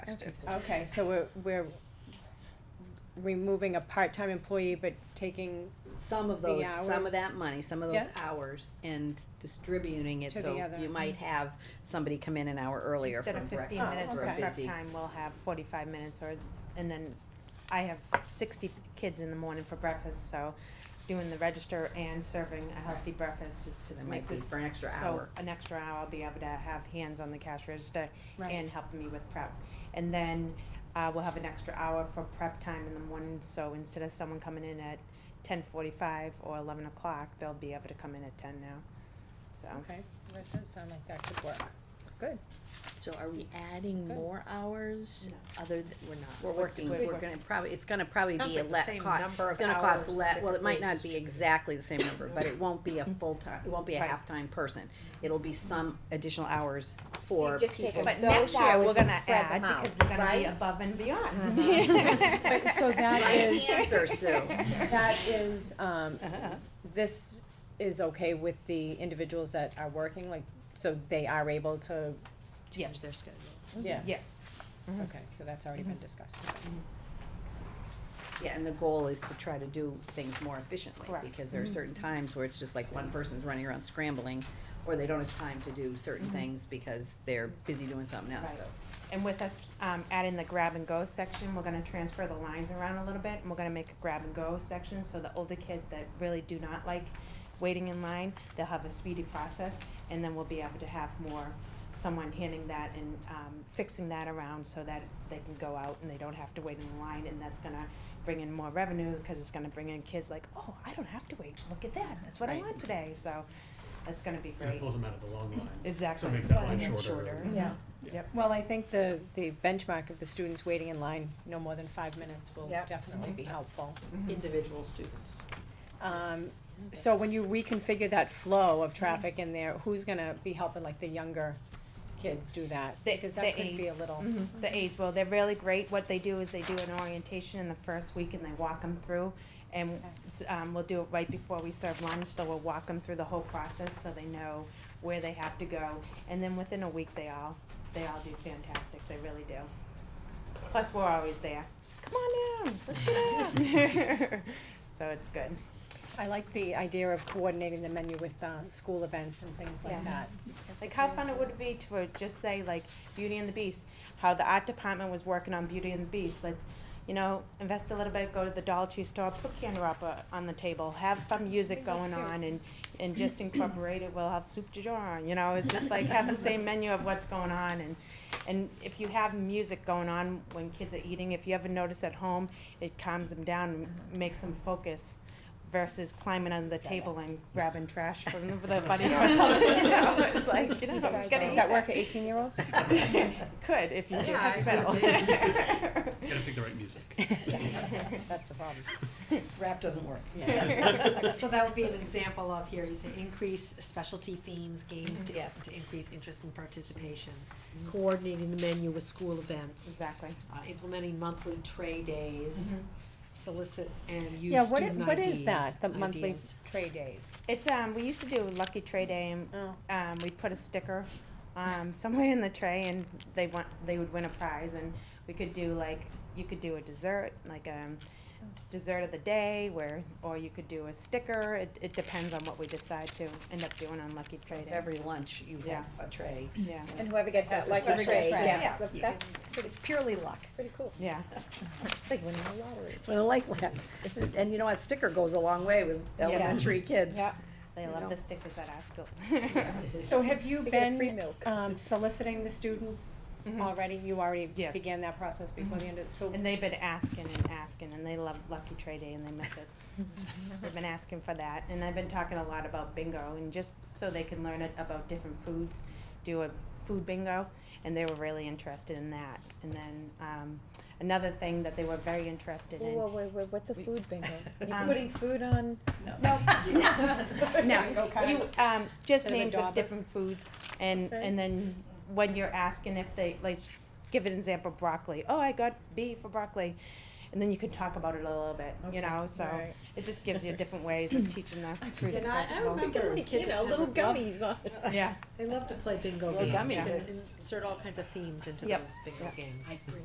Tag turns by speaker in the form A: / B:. A: executive.
B: Okay, Uh, so we're, we're removing a part-time employee, but taking
C: some of
B: The
C: those, some
B: hours.
C: of that money, some of those
B: Yeah.
C: hours and distributing it,
B: To the
C: so
B: other,
C: you might
B: mhm.
C: have somebody come in an hour earlier
A: Instead
C: from
A: of fifteen
C: breakfast
A: minutes
C: if
B: Oh,
A: for
C: we're
B: okay.
A: prep
C: busy.
A: time, we'll have forty-five minutes or, it's- and then I have sixty kids in the morning for breakfast, so doing the register and serving a healthy breakfast, it's,
C: So
A: it
C: that might
A: makes
C: be
A: it.
C: for an extra
A: So
C: hour.
A: an extra hour, I'll be able to have hands on the cash register
B: Right.
A: and helping me with prep. And then, uh, we'll have an extra hour for prep time in the morning, so instead of someone coming in at ten forty-five or eleven o'clock, they'll be able to come in at ten now, so.
B: Okay, that does sound like that could work. Good.
D: So are we adding
B: good.
D: more hours other than, we're not?
C: We're working,
A: We're
C: we're
A: working.
C: gonna probably, it's gonna probably
E: Sounds
C: be a
E: like the
C: let
E: same
C: cost,
E: number
C: it's
E: of
C: gonna cost
E: hours,
C: let, well, it might
E: differently
C: not be exactly the same number, but it won't be a full-time, it won't be a
A: Right.
C: half-time person. It'll be some additional hours for
E: just take
C: people.
A: But
E: But those
A: next year,
E: hours
A: we're gonna
E: spread
A: add,
E: them out,
A: because we're gonna be
C: right?
A: above and
B: But,
A: beyond.
B: so that
C: Right
B: is,
C: answer, Sue.
B: that is, um,
E: Uh-huh.
B: this is okay with the individuals that are working, like, so they are able to,
A: Yes,
D: Their schedule.
B: yeah,
A: yes. Mhm.
B: okay, so that's already been discussed.
C: Yeah, and the goal is to try to do things more efficiently,
A: Correct.
C: because there are certain times where it's just like one person's running around scrambling, or they don't have time to do certain things because they're busy doing something else,
A: Right.
C: so.
A: And with us, um, adding the grab and go section, we're gonna transfer the lines around a little bit, and we're gonna make a grab and go section, so the older kids that really do not like waiting in line, they'll have a speedy process, and then we'll be able to have more, someone handing that and, um, fixing that around so that they can go out and they don't have to wait in line, and that's gonna bring in more revenue, cause it's gonna bring in kids like, oh, I don't have to wait, look at that, that's what I
C: Right.
A: want today, so, that's gonna be
F: And it
A: great.
F: pulls them out of the long line.
A: Exactly.
F: So it makes that
A: Right.
F: line
A: And
F: shorter. really.
B: Yeah.
A: Yep.
B: Well, I think the, the benchmark of the students waiting in line no more than five minutes will
E: Yep.
B: definitely be helpful.
E: Mm-hmm. Individual students.
B: Um, so when you reconfigure that flow of traffic in there, who's gonna be helping like the younger kids do that?
A: The-
B: Because
A: the
B: that could be a
A: aides.
B: little,
A: Mhm. The aides, well, they're really great. What they do is they do an orientation in the first week and they walk them through. And, s- um, we'll do it right before we serve lunch, so we'll walk them through the whole process so they know where they have to go. And then within a week, they all, they all do fantastic. They really do. Plus, we're always there. Come on down, let's get out. So it's good. Mm-hmm.
B: I like the idea of coordinating the menu with, uh, school events and things like
A: Yeah.
B: that.
A: Like how fun it would be to uh, just say like Beauty and the Beast, how the art department was working on Beauty and the Beast. Let's, you know, invest a little bit, go to the Dollar Tree store, put candy wrapper on the table, have fun music going on, and and just incorporate it. We'll have soup du jour. You know, it's just like have the same menu of what's going on and. And if you have music going on when kids are eating, if you ever notice at home, it calms them down and makes them focus versus climbing under the table and grabbing trash from the the buddy or something. You know, it's like, you just
B: Does
A: gotta eat
B: that work for eighteen-year-olds?
A: Could, if you do
E: Yeah,
A: heavy
E: I
A: metal.
F: Gotta pick the right music.
B: That's the problem.
E: Rap doesn't work.
D: Yes.
E: So that would be an example of here, you say increase specialty themes, games to,
C: Yes.
E: to increase interest and participation. Coordinating the menu with school events,
A: Exactly.
E: uh, implementing monthly tray days, solicit and
B: Yeah,
E: use
B: what, i-
E: student
B: what is
E: IDs,
B: that, the monthly
E: ideas.
B: tray days?
A: It's, um, we used to do Lucky Tray Day and
B: Oh,
A: um, we'd put a sticker um, somewhere in the tray and they want they would win a prize and we could do like you could do a dessert like um dessert of the day where or you could do a sticker it, it depends on what we decide to end up doing on lucky trade Day.
C: Every lunch, you have a tray.
A: yeah
G: And whoever gets that
C: Also
G: lucky
C: special
G: tray,
C: tray.
G: yes,
F: Yeah. Yeah.
G: that's
C: It's purely luck.
G: pretty cool.
A: yeah
G: Like winning the lottery.
C: It's what I like that. And you know what, sticker goes a long way with elementary kids.
A: yeah they
C: You
A: love
C: know.
A: the stickers at our school
B: So have you
G: They get free
B: been,
G: milk.
B: um, soliciting the students
A: Mhm.
B: already? You already
A: Yes.
B: began that process before the end of, so
A: And they've been asking and asking, and they love Lucky Trade Day and they miss it. They've been asking for that, and I've been talking a lot about bingo, and just so they can learn it about different foods, do a food bingo, and they were really interested in that. And then, um, another thing that they were very interested in.
G: Whoa, wait, wait, what's a food bingo?
A: Um,
G: You're putting food on?
C: No.
A: No, you, um, just
B: Instead of a
A: names of
B: dauber.
A: different foods, and,
G: Okay.
A: and then when you're asking if they, like, give an example, broccoli, oh, I got B for broccoli, and then you can talk about it a little bit, you know, so.
B: Right.
A: It just gives you different ways of teaching the fruit and
E: And I, I
A: vegetable.
E: remember
G: Like,
E: kids
G: you know,
E: would never
G: little
E: love-
G: gummies on.
A: Yeah.
E: They love to play bingo
C: Little
E: games.
C: gummies.
E: You can Insert all kinds of themes into
A: Yep.
E: those bingo
A: Yep.
E: games.